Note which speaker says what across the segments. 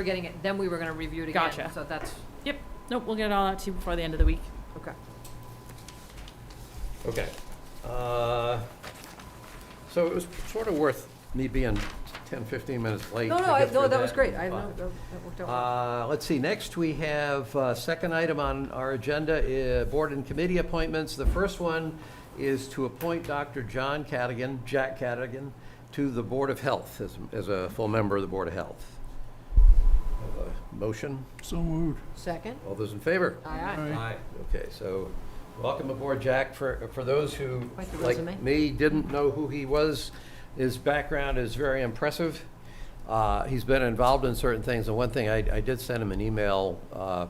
Speaker 1: were getting it, then we were gonna review it again.
Speaker 2: Gotcha.
Speaker 1: So that's,
Speaker 2: Nope, we'll get it all out to you before the end of the week.
Speaker 1: okay.
Speaker 3: Okay. Uh, So it was sort of worth me being 10, 15 minutes late.
Speaker 1: No,
Speaker 3: to
Speaker 1: no, I-
Speaker 3: get
Speaker 1: no,
Speaker 3: through
Speaker 1: that was great. I, no,
Speaker 3: Uh,
Speaker 1: that that worked out. well.
Speaker 3: Uh, Let's see, next we have, uh, second item on our agenda, uh, board and committee appointments. The first one is to appoint Dr. John Cadigan, Jack Cadigan, to the Board of Health as, as a full member of the Board of Health. Have a Motion,
Speaker 4: So moved.
Speaker 1: Second?
Speaker 3: all those in favor?
Speaker 1: Aye, aye.
Speaker 3: Aye. Okay, so welcome aboard, Jack. For, for those who,
Speaker 1: Quite the resume.
Speaker 3: like me, didn't know who he was, his background is very impressive. Uh, He's been involved in certain things, and one thing, I, I did send him an email. uh,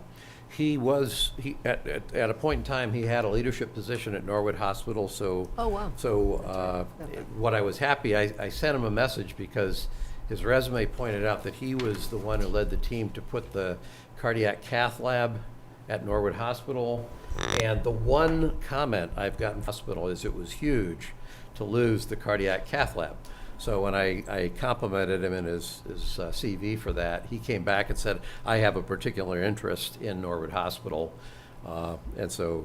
Speaker 3: He was, he, at, at, at a point in time, he had a leadership position at Norwood Hospital, so.
Speaker 1: Oh, wow.
Speaker 3: So, uh, what I was happy, I, I sent him a message because his resume pointed out that he was the one who led the team to put the cardiac cath lab at Norwood Hospital. And the one comment I've gotten from the hospital is it was huge to lose the cardiac cath lab. So when I, I complimented him in his, his uh, CV for that, he came back and said, I have a particular interest in Norwood Hospital. Uh, and so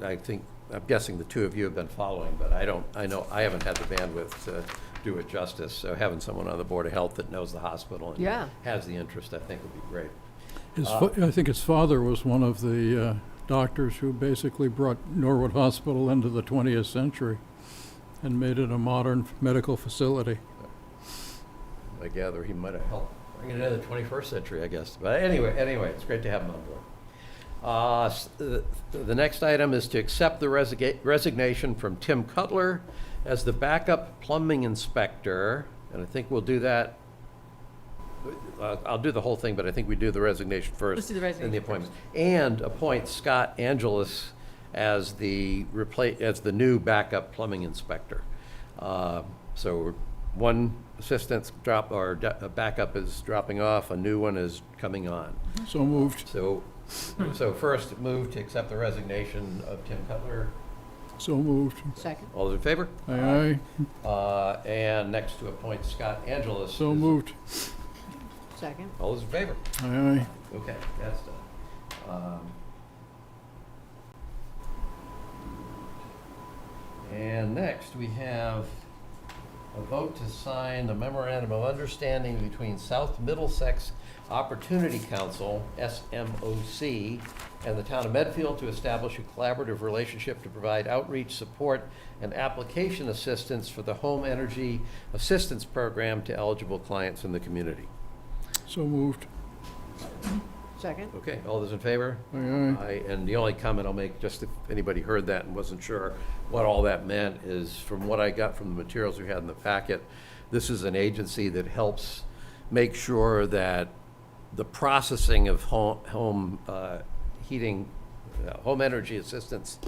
Speaker 3: I, I think, I'm guessing the two of you have been following, but I don't, I know, I haven't had the bandwidth to do it justice. So having someone on the Board of Health that knows the hospital and
Speaker 1: Yeah.
Speaker 3: has the interest, I think would be great.
Speaker 4: His, fa- I think his father was one of the uh, doctors who basically brought Norwood Hospital into the 20th century and made it a modern f- medical facility.
Speaker 3: I gather he might have helped bring it into the 21st century, I guess. But anyway, anyway, it's great to have him on board. Uh, s- The the next item is to accept the resiga- resignation from Tim Cutler as the backup plumbing inspector, and I think we'll do that. uh, I'll do the whole thing, but I think we do the resignation 1st
Speaker 2: Let's do the
Speaker 3: And the
Speaker 2: resignation
Speaker 3: appointments. And appoint Scott Angelus as the repla, as the new backup plumbing inspector. Uh, So one assistant's drop, or da- uh, backup is dropping off, a new one is coming on.
Speaker 4: So moved.
Speaker 3: So, so first move to accept the resignation of Tim Cutler.
Speaker 4: So moved.
Speaker 1: Second?
Speaker 3: All those in favor?
Speaker 4: Aye aye.
Speaker 3: Uh, And next to appoint Scott Angelus.
Speaker 4: So
Speaker 3: as-
Speaker 4: moved.
Speaker 1: Second.
Speaker 3: All those in favor?
Speaker 4: Aye aye.
Speaker 3: Okay, that's done. Um, And next, we have a vote to sign the memorandum of understanding between South Middlesex Opportunity Council, SMOC, and the town of Medfield to establish a collaborative relationship to provide outreach, support, and application assistance for the home energy assistance program to eligible clients in the community.
Speaker 4: So moved.
Speaker 1: Second?
Speaker 3: Okay, all those in favor?
Speaker 4: Aye aye.
Speaker 3: I- And the only comment I'll make, just if anybody heard that and wasn't sure what all that meant, is from what I got from the materials we had in the packet, this is an agency that helps make sure that the processing of home, home uh, heating, uh, home energy assistance,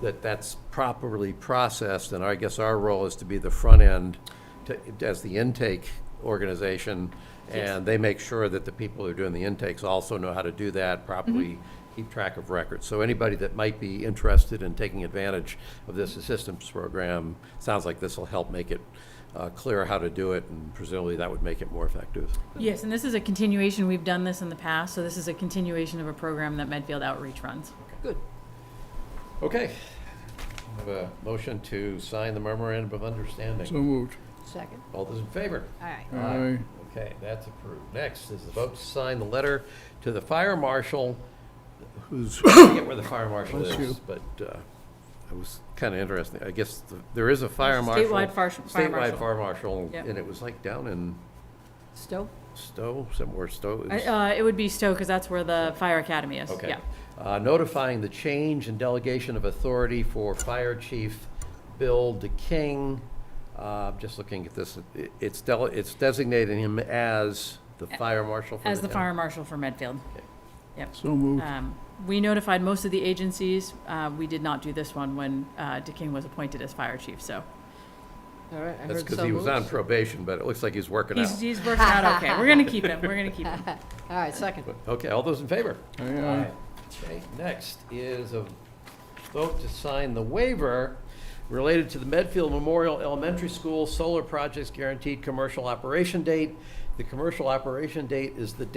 Speaker 3: that that's properly processed, and I guess our role is to be the front end, to- as the intake organization, and they make sure that the people who are doing the intakes also know how to do that properly, keep track of records. So anybody that might be interested in taking advantage of this assistance program, sounds like this will help make it uh, clear how to do it, and presumably that would make it more effective.
Speaker 2: Yes, and this is a continuation, we've done this in the past, so this is a continuation of a program that Medfield Outreach runs.
Speaker 1: Good.
Speaker 3: Okay. Have a motion to sign the memorandum of
Speaker 4: So
Speaker 3: understanding.
Speaker 4: moved.
Speaker 1: Second?
Speaker 3: All those in favor?
Speaker 1: Aye.
Speaker 4: Aye
Speaker 3: Aye.
Speaker 4: aye.
Speaker 3: Okay, that's approved. Next is the vote to sign the letter to the fire marshal, who's, I forget where the fire marshal
Speaker 4: Bless
Speaker 3: is,
Speaker 4: you.
Speaker 3: but uh, it was kind of interesting. I guess th- there is a fire marshal.
Speaker 2: Statewide fire- fire
Speaker 3: Statewide
Speaker 2: marshal.
Speaker 3: fire marshal,
Speaker 2: Yep.
Speaker 3: and it was like down in
Speaker 1: Stowe?
Speaker 3: Stowe, somewhere Stowe.
Speaker 2: I-
Speaker 3: is-
Speaker 2: Uh, it would be Stowe, because that's where the fire academy is,
Speaker 3: Okay.
Speaker 2: yeah.
Speaker 3: Uh, Notifying the change and delegation of authority for Fire Chief Bill DeKing. Uh, Just looking at this, it- it's del- it's designating him as the fire marshal for the
Speaker 2: As the
Speaker 3: town.
Speaker 2: fire marshal for Medfield.
Speaker 4: So moved.
Speaker 2: Um, we notified most of the agencies, uh, we did not do this one when, uh, DeKing was appointed as fire chief, so.
Speaker 1: All right, I heard so
Speaker 3: That's because he was
Speaker 1: moved.
Speaker 3: on probation, but it looks like he's working out.
Speaker 2: He's, he's working out okay, we're gonna keep him, we're gonna keep him.
Speaker 1: All right, second.
Speaker 3: Okay, all those in favor?
Speaker 4: Aye aye.
Speaker 3: Okay, next is a vote to sign the waiver related to the Medfield Memorial Elementary School Solar Project's Guaranteed Commercial Operation Date. The commercial operation date is the